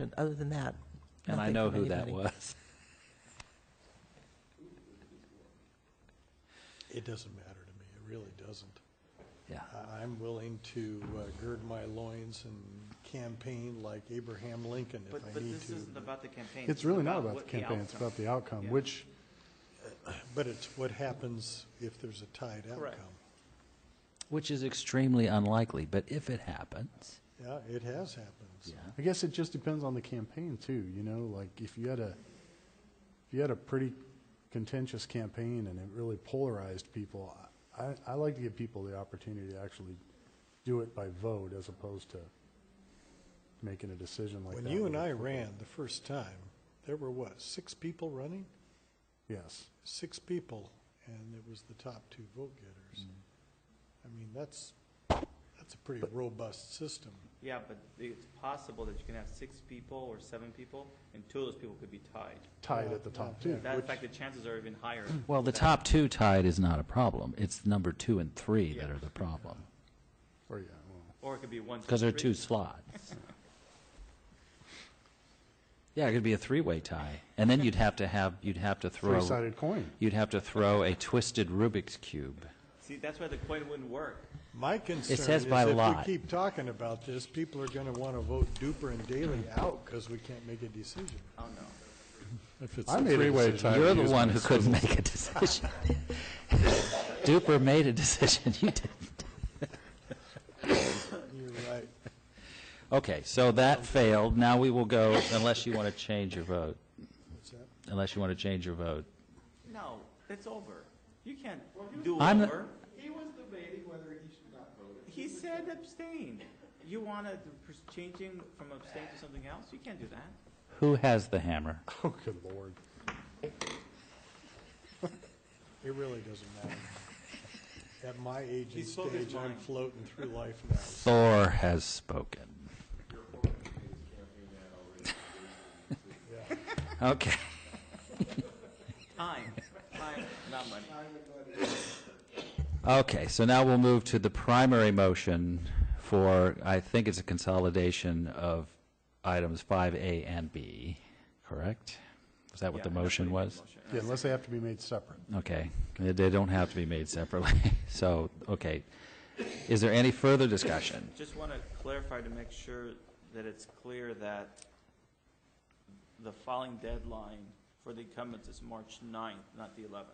But other than that. And I nothing know from who that anybody. was. It doesn't matter to me, it really doesn't. Yeah. I- I'm willing to uh, gird my loins and campaign like Abraham Lincoln if But, I but need this to. isn't about the campaign. This It's is really not about what the campaign, it's outcome. about the outcome, Yeah. which, But it's what happens if there's a tied Correct. outcome. Which is extremely unlikely, but if it happens, Yeah, it has happened. I guess it just depends on the campaign too, you know, like if you had a, if you had a pretty contentious campaign and it really polarized people, I, I like to give people the opportunity to actually do it by vote as opposed to making a decision like that. When you and with a I football. ran the first time, there were what, six people running? Yes. Six people, and it was the top two vote getters. Mm. I mean, that's, that's a pretty robust system. Yeah, but it's possible that you can have six people or seven people, and two of those people could be tied. Tied at the top two. That, in fact, the chances are even higher. well, the that- top two tied is not a problem. It's number two and three that Yeah. are the problem Or, yeah, well, Or it could be one. two, because they're three. two slots. yeah, it could be a three-way tie, and then you'd have to have you'd have to throw three-sided coin. you'd have to throw a twisted Rubik's cube. See, that's why the coin wouldn't work. My concern says is by if we lot. keep talking about this, people are going to want to vote Duper and Daley Hmm. out because we can't make a decision. Oh, no. If it's I a made a three-way decision. tie. You're we the use one my who sizzle. couldn't make a decision. Duper made a decision. You did. You're right. Okay, so that failed. Now we will go unless you want to change your vote. What's that? Unless you want to change your vote. No, it's over. You can't do I'm- over. He was debating whether he should not vote. He said abstain. You want to changing from abstain to something else? You can't do that. Who has the hammer? Oh, good lord. It really doesn't matter. At my age and He spoke his stage, I'm mind. floating through life now. Thor has spoken. Okay. Time, time, not money. Okay, so now we'll move to the primary motion for, I think it's a consolidation of items 5A and B, correct? Is that what Yeah, the that's what motion he was? motion. Yeah, unless they have to be made separate. Okay, they they don't have to be made separately. So, okay. Is there any further discussion? Just want to clarify to make sure that it's clear that the filing deadline for the incumbents is March 9th, not the 11th.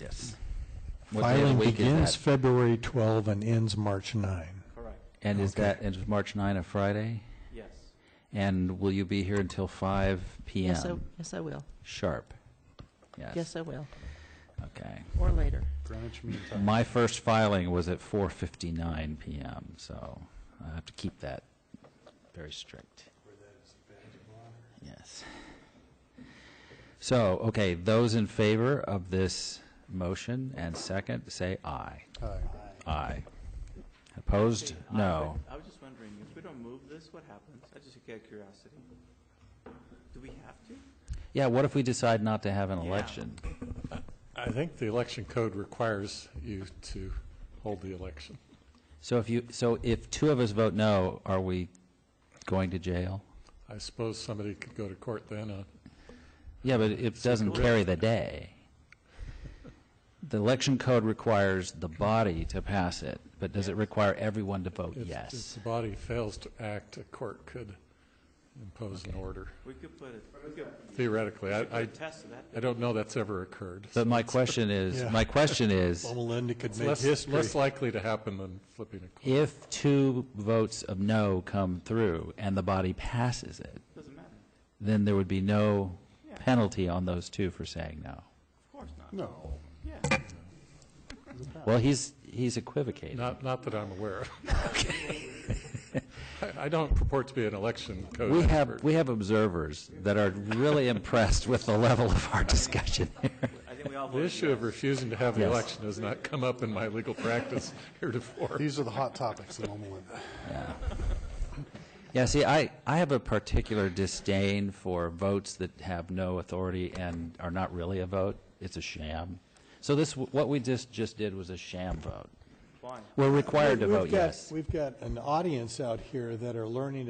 Yes. Filing begins February 12 and ends March 9. Correct. And is that, is March 9 a Friday? Yes. And will you be here until 5 PM? Yes, I, yes, I will. Sharp? Yes. Yes, I will, Okay. or later. Greenwich Mean Time. My first filing was at 4:59 PM, so I have to keep that very strict. Yes. So, okay, those in favor of this motion and second, say aye. Aye. Aye. Opposed? See, I- No. I was just wondering, if we don't move this, what happens? I just get curiosity. Do we have to? Yeah, what if we decide not to have an Yeah. election? I think the election code requires you to hold the election. So if you, so if two of us vote no, are we going to jail? I suppose somebody could go to court then uh, on Yeah, but it doesn't carry the day. The election code requires the body to pass it, but does it require everyone to vote If- If yes? the body fails to act, a court could impose an order We could put it, we could theoretically. I, I, put a test to that. I don't know that's ever occurred. But my question is, Yeah. my question is, Well, Melinda could It's make less, less history. likely to happen than flipping a coin. if two votes of no come through and the body passes it, Doesn't matter. then there would be no Yeah. penalty on those two for saying no. Of course not. No. Yeah. Well, he's, he's equivocating. Not, not that I'm aware of. I, I don't purport to be an election code We expert. have, we have observers that are really impressed with the level of our discussion here. I think we all The voted issue of yes. refusing to have the Yes. election has not come up in my legal practice heretofore. These are the hot topics at the moment. Yeah, see, I, I have a particular disdain for votes that have no authority and are not really a vote. It's a sham. So this, what we just, just did was a sham vote. Fine. We're required to We've vote got- yes. We've got an audience out here that are learning